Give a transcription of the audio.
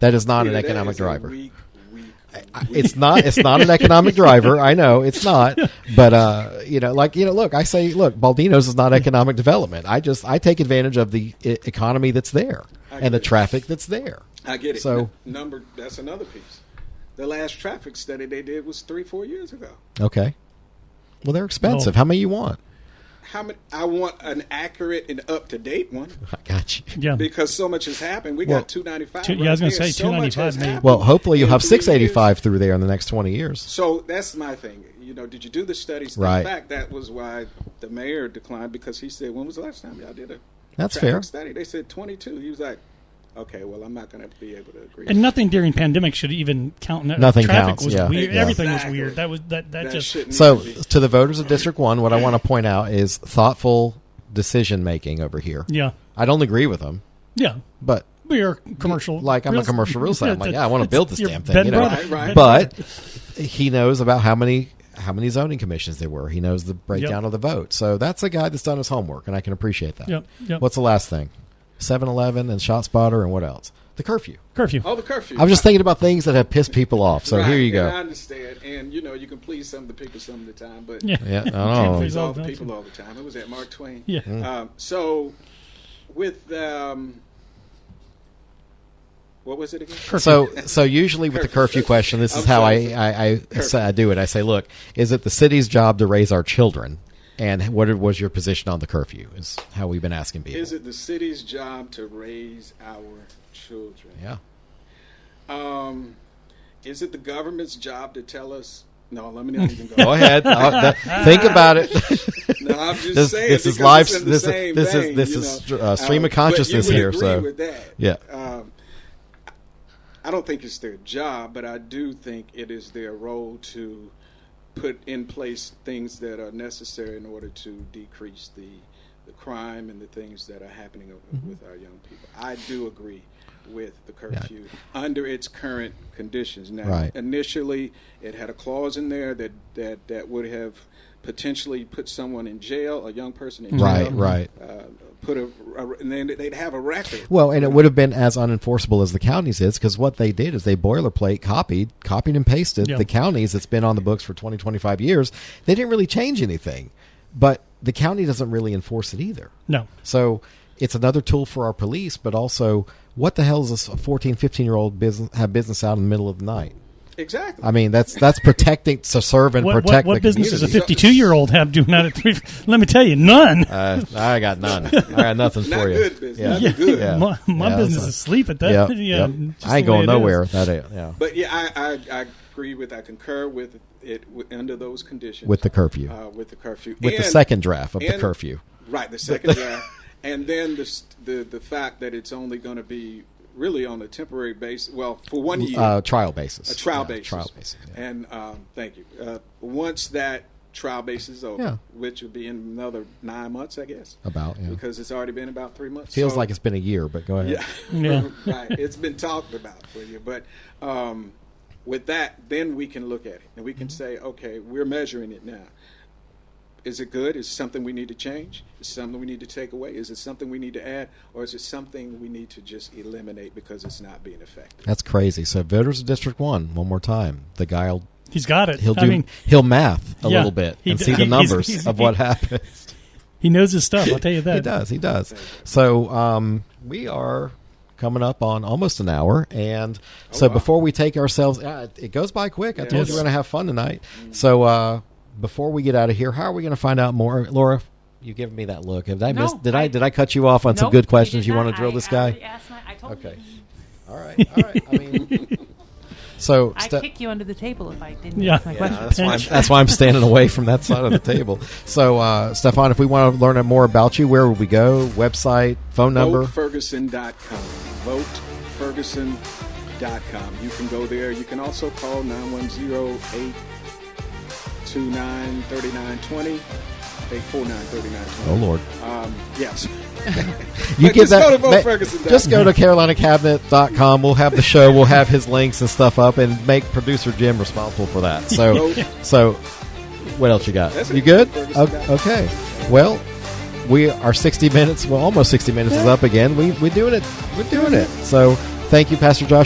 That is not an Yeah, that economic is a driver. weak, weak, I- it's not it's not an economic driver. I know it's not, but uh, you know, like you know, look, I say, look, Baldino's is not economic development. I just I take advantage of the e- economy that's there I and the agree. traffic that's there. I get it. So- N- number that's another piece. The last traffic study they did was three, four years ago. Okay, well they're expensive. Well- How many you want? How many? I want an accurate and up to date one I got you. Yeah. because so much has happened. We Well, got two ninety five. two- yeah, I was gonna say, 295 may- Well, hopefully you'll have six eighty five through there in the next twenty years. So that's my thing. You know, did you do the studies? Right. In fact, that was why the mayor declined because he said, "When was the last time y'all did a That's traffic fair. study?" They said twenty two. He was like, "Okay, well, I'm not going to be able to agree." And nothing during pandemic should even count. No- Nothing Traffic counts, was yeah. weird. Yeah. Everything Exactly. was weird. That was that. That, That just shouldn't So, even be. to the voters of District One, what I want to point out is thoughtful decision making over here. yeah I don't agree with them, yeah. but We are commercial. Like, I'm a commercial real estate. I'm like, yeah, I wanna it's build this your damn thing, bed you and know. breakfast. Right, right. but he knows about how many how many zoning commissions there were. He knows the breakdown Yep. of the vote. So that's a guy that's done his homework, and I can appreciate that. Yep, yep. What's the last thing? 7-Eleven and ShotSpotter and what else? The curfew. curfew. oh, the curfew. I was just thinking about things that have pissed people off. So Right, here you and I go. understand, and you know, you can please some of the people some of the time, but Yeah. Yeah, I don't Can't know. Mm. please please all the Exactly. people all the time. It was at Mark Twain. Yeah. Um, so, with um, what was it again? So, so usually with the curfew question, this is I'm how I sorry. I, I, say- I do it. I say, look, is it the city's job to raise our children, and what was your position on the curfew? Is how we've been asking people. Is it the city's job to raise our children? Yeah. Um, is it the government's job to tell us? No, let me not even go. Go ahead. I'll- that- think about it. No, I'm just This- saying. this is because live- it's in the this is- same this is- vein, this you is know. Um, str- uh, stream of but you would consciousness here, agree so- with that. Yeah. Um, I don't think it's their job, but I do think it is their role to put in place things that are necessary in order to decrease the the crime and the things that are happening o- Mm-hmm. with our young people. I do agree with the curfew under its current conditions. Now, Right. initially, it had a clause in there that that that would have potentially put someone in jail, a young person in jail. Right, right. Uh, put a, a- and then they'd have a record. Well, and it would have been as unenforceable as the counties is because what they did is they boilerplate copied, copied and pasted Yeah. the counties that's been on the books for 20, 25 years. They didn't really change anything, but the county doesn't really enforce it either. No. So it's another tool for our police, but also what the hell does a 14, 15 year old business have business out in the middle of the night? exactly. I mean, that's that's protecting to serve and What, what, protect the what business does a community. 52 year old have doing that at three? Let me tell you, none. Uh, I got none. I got nothing Not for you. good business. Not good. Yeah. My, my Yeah, business that's is sleep at that. Yep, Yeah, yep. just I ain't the way going it is. nowhere. That is, yeah. But yeah, I, I, I agree with, I concur with it w- under those conditions. With the curfew. Uh, with the curfew. With the And- second draft of the and- curfew. Right, the second draft. And then the, s- the, the fact that it's only going to be really on a temporary basis, well, for one year. Uh, trial basis. a trial Yeah, basis. Trial basis. yeah. And um, thank you. Uh, once that trial basis is over, Yeah. which will be in another nine months, I guess. About, yeah. Because it's already been about three months. Feels So- like it's been a year, but go ahead. yeah. Yeah. right. It's been talked about for you. But um, with that, then we can look at it and we can say, okay, we're measuring it now. Is it good? Is it something we need to change? Is it something we need to take away? Is it something we need to add? Or is it something we need to just eliminate because it's not being effective? That's crazy. So voters of District One, one more time. The guy'll He's got it. he'll do I mean, he'll math a Yeah, little bit he and d- see the he- he's- numbers he's- of what he- happens. he knows his stuff. I'll tell you that. He does. He does. So um, we are coming up on almost an hour, and so wow. before we take ourselves, yeah, it- it goes by quick. I told Yes. you we're going to have fun tonight. So uh, before we get out of here, how are we going to find out more, Laura? You giving me that look? Did I No, miss? Did I, I- did I cut you off on some Nope, good you questions? did You not. want to drill I- this I guy? already asked my- I told Okay. you. All right. All right. I mean, so I'd step- kick you under the table if I didn't Yeah. ask my Yeah, question. that's why, I'm, Pinch. that's why I'm standing away from that side of the table. So, uh, Stefan, if we want to learn more about you, where would we go? Website, phone number? VoteFerguson.com. VoteFerguson.com. You can go there. You can also call 910 829 3920. 849 oh, Lord. Um, yes. You give But just that. go to ma- VoteFerguson.com. just go to CarolinaCabinet.com. We'll have the show. We'll have his links and stuff up, and make producer Jim responsible for that. So, Vote. so what else you got? That's it. you good? VoteFerguson.com. O- Okay. Well, we are 60 minutes. Well, almost 60 minutes is up again. We we're doing it. We're doing it. So, thank you, Pastor Josh.